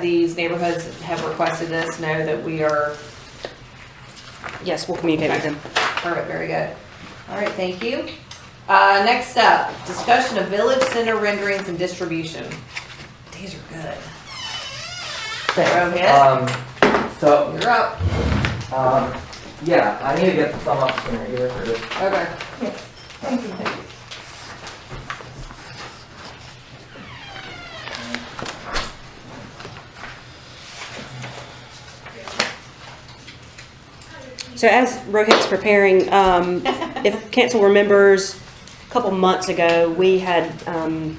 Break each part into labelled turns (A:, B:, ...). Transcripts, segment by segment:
A: these neighborhoods have requested this know that we are,
B: Yes, we'll communicate with them.
A: perfect, very good. All right, thank you. Uh, next up, discussion of village center renderings and distribution. These are good.
C: Thanks. Um, so,
A: You're up.
C: um, yeah, I need to get the thumb up sooner here for this.
A: Okay.
B: So as Rohit's preparing, um, if council remembers, a couple months ago, we had, um,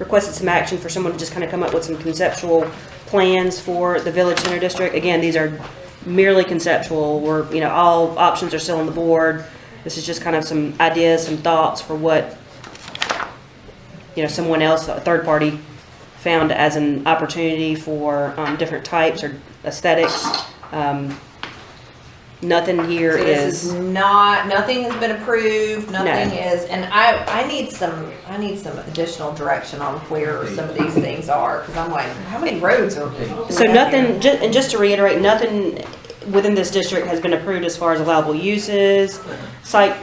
B: requested some action for someone to just kind of come up with some conceptual plans for the Village Center District. Again, these are merely conceptual, we're, you know, all options are still on the board. This is just kind of some ideas, some thoughts for what, you know, someone else, a third party, found as an opportunity for, um, different types or aesthetics. Um, Nothing here
A: So this is
B: is,
A: not, nothing has been approved, nothing is, and I, I need some, I need some additional direction on where some of these things are, cause I'm like, how many roads are?
B: so nothing, ju- and just to reiterate, nothing within this district has been approved as far as allowable uses, site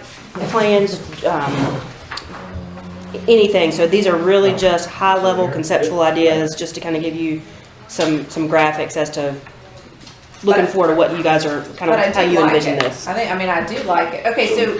B: plans, um, anything. So these are really just high-level conceptual ideas, just to kind of give you some, some graphics as to looking forward to what you guys are, kind
A: But I
B: of how
A: do
B: you
A: like
B: envision
A: it.
B: this.
A: I think, I mean, I do like it. Okay, so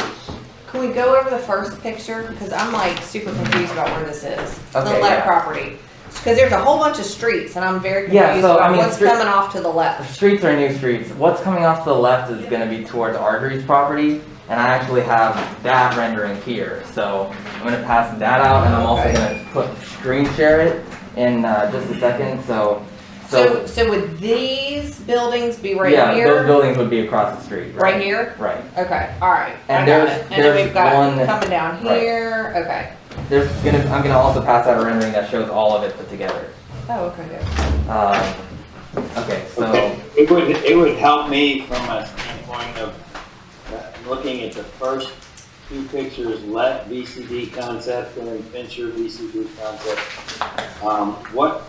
A: can we go over the first picture? Cause I'm like super confused about where this is. The
C: Okay,
A: left
C: yeah.
A: property. Cause there's a whole bunch of streets and I'm very
C: Yeah,
A: confused
C: so, I
A: about
C: mean,
A: what's
C: through-
A: coming off to the
C: The
A: left.
C: Streets are new streets. What's coming off to the left is gonna be towards Artery's property, and I actually have that rendering here. So I'm gonna pass that out, and I'm also
A: Okay.
C: gonna put, screen share it in, uh, just a second, so.
A: So, so would these buildings be
C: Yeah,
A: right
C: those
A: here?
C: buildings would be across the street, right?
A: Right here?
C: Right.
A: Okay, alright. I
C: And
A: got
C: there's-
A: it. And then
C: there's
A: we've got
C: one-
A: coming down
C: right.
A: here. Okay.
C: There's gonna, I'm gonna also pass out a rendering that shows all of it put together.
A: Oh, okay, good.
C: Um, okay, so,
D: Okay, It would, it would help me from a standpoint of uh, looking at the first two pictures, let VCD concept and then Fincher VCD concept. Um, What,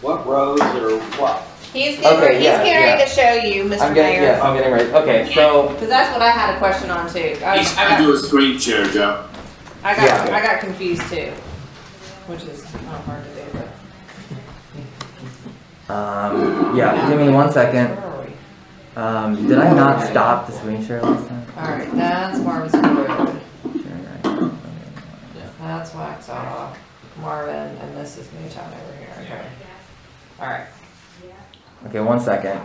D: what roads or what?
A: He's, getting- he's
C: yeah,
A: getting ready
C: yeah.
A: to show you, Mr.
C: I'm getting,
A: Mayor.
C: yes, I'm getting ready, okay, so,
A: Cause that's what I had a question on too. Uh, I
E: He's
A: was- I
E: trying
A: got-
E: to do a screen share, Joe.
A: I got
C: Yeah.
A: I got confused too, which is not hard to do. But
C: um, yeah, give me one second.
A: where are we?
C: Um, did I not stop the screen share last time?
A: All right, that's Marvin's Road.
C: Sharing icon.
A: That's Waxaw, Marvin, and this is Newtown over here. Okay. All right.
C: Okay, one second.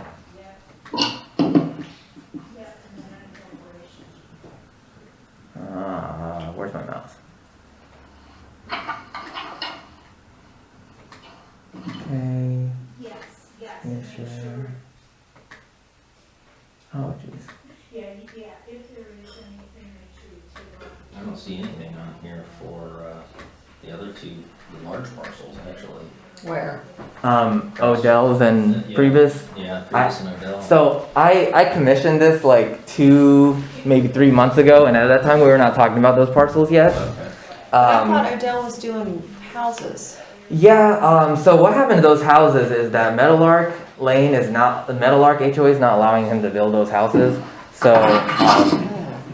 C: Uh, where's my mouse? Okay.
F: Yes, yes,
C: Yeah,
F: and make
C: sure.
F: sure,
C: Oh, jeez.
F: yeah, you- yeah, if there is anything that you, to, uh,
G: I don't see anything on here for, uh, the other two, the large parcels, actually.
A: Where?
C: Um, Odell's and
G: Yeah.
C: Priebus.
G: Yeah, Prius and Odell.
C: So I, I commissioned this like two, maybe three months ago, and at that time we were not talking about those parcels yet.
G: Okay.
C: Um,
A: Odell was doing houses.
C: yeah. Um, so what happened to those houses is that Metalark Lane is not the Metalark HOA is not allowing him to build those houses. So um,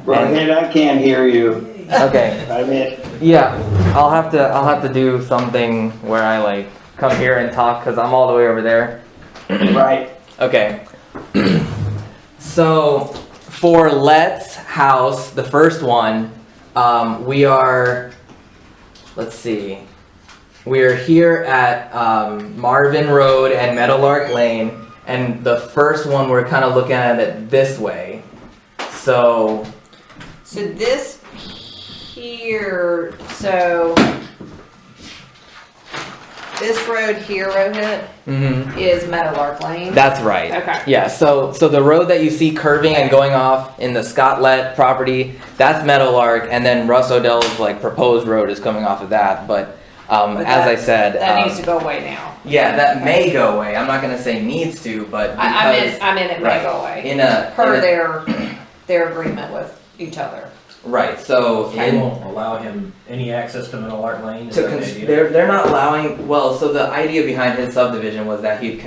D: Rohit, I can't hear you.
C: okay,
D: I mean,
C: yeah. I'll have to I'll have to do something where I like come here and talk because I'm all the way over there.
D: right,
C: Okay. so for Let's House, the first one, um, we are. Let's see. We are here at um, Marvin Road and Meadowlark Lane, and the first one we're kind of looking at it this way. So
A: So this here, so this road here, Rohit,
C: mhm,
A: is Meadowlark Lane.
C: that's right.
A: Okay.
C: Yeah, so so the road that you see curving and going off in the Scotlet property, that's Meadowlark, and then Russ Odell's like proposed road is coming off of that. But, um,
A: But
C: as
A: that-
C: I said,
A: That
C: um,
A: needs to go away now.
C: yeah, that may go away. I'm not gonna say needs to, but because
A: I, I'm in, I'm in it may
C: right.
A: go away.
C: in a,
A: per
C: in a-
A: their, their agreement with each other.
C: right, so
G: They
C: in,
G: won't allow him any access to Middle Art Lane? is
C: to
G: that the
C: cons-
G: idea?
C: they're they're not allowing. Well, so the idea behind his subdivision was that he'd